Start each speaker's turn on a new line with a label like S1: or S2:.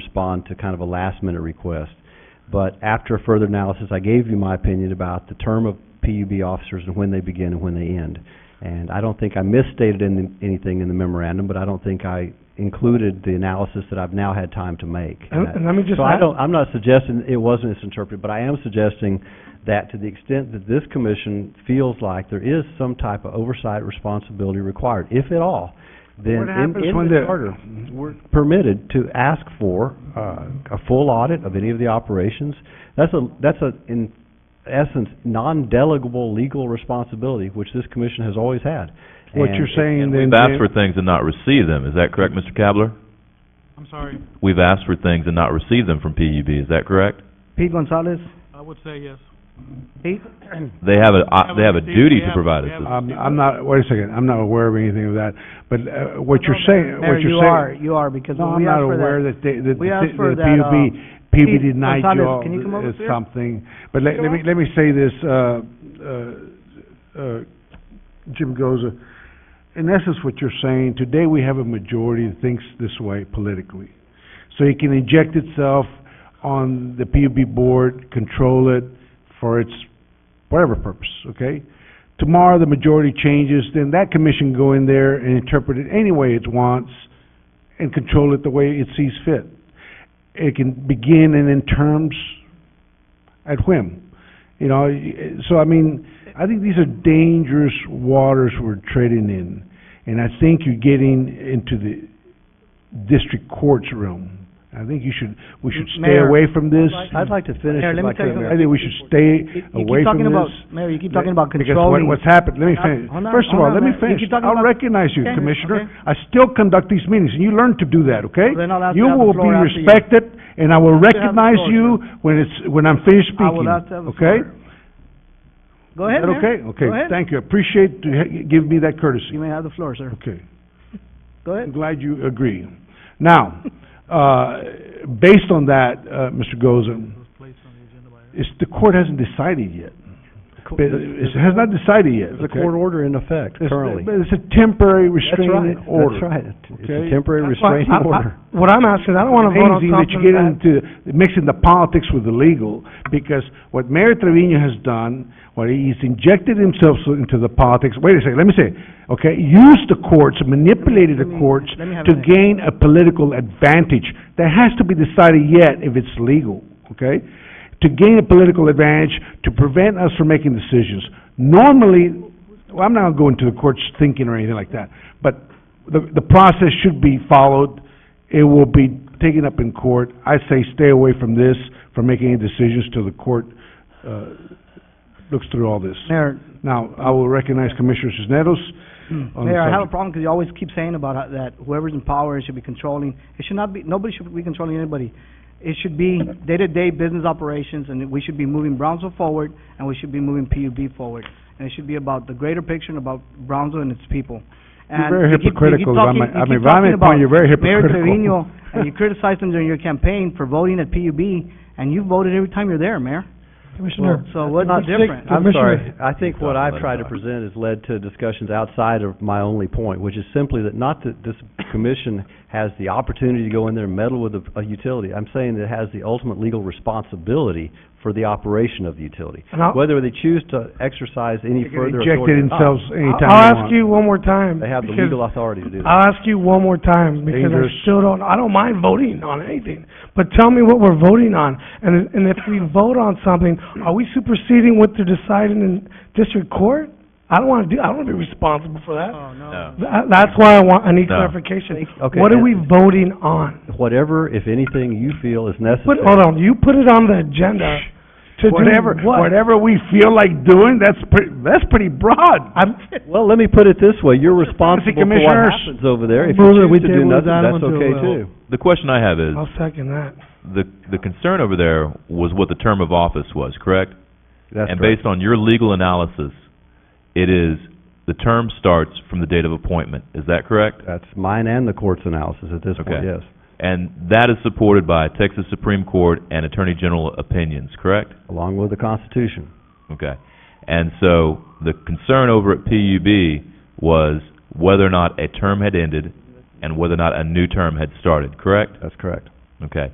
S1: respond to kind of a last-minute request. But after further analysis, I gave you my opinion about the term of PUB officers and when they begin and when they end. And I don't think I misstated in anything in the memorandum, but I don't think I included the analysis that I've now had time to make.
S2: And, and let me just
S1: So I
S2: add,
S1: don't, I'm not suggesting it was misinterpreted, but I am suggesting that to the extent that this commission feels like there is some type of oversight responsibility required, if at all, then
S2: what happens
S1: in, in
S2: when
S1: the
S2: the-
S1: charter, we're permitted to ask for, uh, a full audit of any of the operations. That's a, that's a, in essence, non-delegable legal responsibility, which this commission has always had.
S2: What
S1: And
S2: you're
S1: it-
S2: saying
S3: And
S2: then,
S3: we've asked for things and not received them, is that correct, Mr. Kabler?
S4: I'm sorry,
S3: We've asked for things and not received them from PUB, is that correct?
S5: Pete Gonzalez,
S4: I would say yes.
S5: Pete?
S3: They have a, op- they have a
S4: Haven't
S3: duty
S4: received, we
S3: to
S4: have-
S3: provide
S4: we
S3: us
S4: have-
S3: this.
S2: I'm, I'm not, wait a second, I'm not aware of anything of that, but, uh, what you're
S5: No,
S2: saying,
S5: Mayor,
S2: what you're saying.
S5: you are, you are, because
S2: No,
S5: when
S2: I'm
S5: we asked
S2: not
S5: for
S2: aware
S5: that.
S2: that they, that the
S5: we asked for
S2: the
S5: that,
S2: PUB,
S5: uh,
S2: PUB
S5: Pete
S2: denied
S5: Gonzalez,
S2: you all
S5: can you come over
S2: is
S5: here?
S2: something. But let,
S5: Come
S2: let me,
S5: on.
S2: let me say this, uh, uh, uh, Jim Goza, in essence, what you're saying, today we have a majority that thinks this way politically. So it can inject itself on the PUB board, control it for its whatever purpose, okay? Tomorrow, the majority changes, then that commission go in there and interpret it any way it wants and control it the way it sees fit. It can begin and end terms at whim. You know, y- so I mean, I think these are dangerous waters we're treading in. And I think you're getting into the district courts realm. I think you should, we should stay
S5: Mayor,
S2: away from this.
S1: I'd like to finish
S5: Mayor,
S1: if I
S5: let me tell you
S1: could, Mayor.
S2: I think we should stay
S5: You- you keep
S2: away from
S5: talking about-
S2: this.
S5: Mayor, you keep talking about
S2: Because what,
S5: controlling.
S2: what's happened, let me
S5: Hold on,
S2: finish.
S5: hold on,
S2: First of
S5: hold
S2: all,
S5: on,
S2: let me
S5: Mayor. You
S2: finish.
S5: keep talking
S2: I'll
S5: about-
S2: recognize you,
S5: Okay,
S2: Commissioner.
S5: okay.
S2: I still conduct these meetings, and you learn to do that, okay?
S5: Then I'll have to
S2: You
S5: have the
S2: will be
S5: floor after you.
S2: respected, and I will
S5: have to have the
S2: recognize
S5: floor,
S2: you when it's, when I'm finished
S5: I will
S2: speaking,
S5: have to have the
S2: okay?
S5: floor. Go ahead, Mayor.
S2: Is that okay?
S5: Go
S2: Okay,
S5: ahead.
S2: thank you. I Appreciate to ha- give me that courtesy.
S5: You may have the floor, sir.
S2: Okay.
S5: Go
S2: I'm
S5: ahead.
S2: glad you agree. Now, uh, based on that, uh, Mr. Goza,
S4: It was placed on the agenda by-
S2: it's, the court hasn't decided yet.
S1: Co-
S2: It it has not decided yet,
S1: There's a
S2: okay?
S1: court order in effect
S2: It's-
S1: currently.
S2: But it's a temporary
S1: That's right,
S2: restraining order.
S1: That's right. It's a
S2: okay?
S1: temporary
S2: That's why I-
S1: restraining
S2: I- I-
S1: order.
S6: What I'm asking, I don't wanna vote on
S2: Amazing that you
S6: something
S2: get
S6: that-
S2: into mixing the politics with the legal, because what Mayor Trevino has done, what he's injected himself so- into the politics, wait a second, let me say, it, okay, used the courts, manipulated the
S5: Let me-
S2: courts
S5: let me have
S2: to
S5: a minute.
S2: gain a political advantage. That has to be decided yet if it's legal, okay? To gain a political advantage, to prevent us from making decisions. Normally, well, I'm not going to the court's thinking or anything like that, but the, the process should be followed. It will be taken up in court. I say stay away from this, from making any decisions till the court, uh, looks through all this.
S5: Mayor,
S2: Now, I will recognize Commissioner Sisnetos on the
S5: Hmm. Mayor, I have a
S2: subject.
S5: problem because you always keep saying about how- that whoever's in power should be controlling. It should not be, nobody should be controlling anybody. It should be day-to-day business operations, and we should be moving Brownsville forward, and we should be moving PUB forward. And it should be about the greater picture and about Brownsville and its people.
S2: You're
S5: And
S2: very
S5: you keep- you keep
S2: hypocritical. I
S5: talking-
S2: mean,
S5: you
S2: I
S5: keep
S2: mean, if
S5: talking
S2: I'm at
S5: about
S2: point, you're very
S5: Mayor
S2: hypocritical.
S5: Trevino, and you criticized him during your campaign for voting at PUB, and you voted every time you're there, Mayor.
S6: Commissioner,
S5: So what's
S1: not
S5: the difference?
S1: I'm
S6: Commissioner-
S1: sorry, I think what I've tried to present has led to discussions outside of my only point, which is simply that not that this commission has the opportunity to go in there and meddle with a, a utility. I'm saying that it has the ultimate legal responsibility for the operation of the utility.
S6: And I'll-
S1: Whether they choose to exercise any
S2: They can
S1: further
S2: inject
S1: authority
S2: it
S1: or not,
S2: themselves anytime they
S6: I'll ask
S2: want.
S6: you one more time.
S1: they have the
S6: because-
S1: legal authority to do that.
S6: I'll ask you one more time, because I
S2: dangerous.
S6: still don't, I don't mind voting on anything, but tell me what we're voting on. And, and if we vote on something, are we superseding what they're deciding in district court? I don't wanna do, I don't wanna be responsible for that.
S4: Oh,
S3: No.
S6: Tha- that's why I want, I need
S3: No.
S6: clarification.
S1: Okay,
S6: What are
S1: and-
S6: we voting on?
S1: Whatever, if anything, you feel is
S6: Put,
S1: necessary.
S6: hold on, you put it on the agenda to do
S2: Whatever,
S6: what?
S2: whatever we feel like doing, that's pretty, that's pretty broad.
S6: I'm,
S1: Well, let me put it this way, you're responsible for what
S2: Commissioners?
S1: happens over there. If you
S6: Move that we
S1: choose to do
S6: table this
S1: nothing,
S6: item
S1: that's
S6: until,
S1: okay
S6: uh,
S1: too.
S3: The question I have is,
S6: I'll second that.
S3: the, the concern over there was what the term of office was, correct?
S1: That's
S3: And
S1: correct.
S3: based on your legal analysis, it is, the term starts from the date of appointment, is that correct?
S1: That's mine and the court's analysis at this point,
S3: Okay.
S1: yes.
S3: And that is supported by Texas Supreme Court and Attorney General opinions, correct?
S1: Along with the Constitution.
S3: Okay. And so, the concern over at PUB was whether or not a term had ended and whether or not a new term had started, correct?
S1: That's correct.
S3: Okay.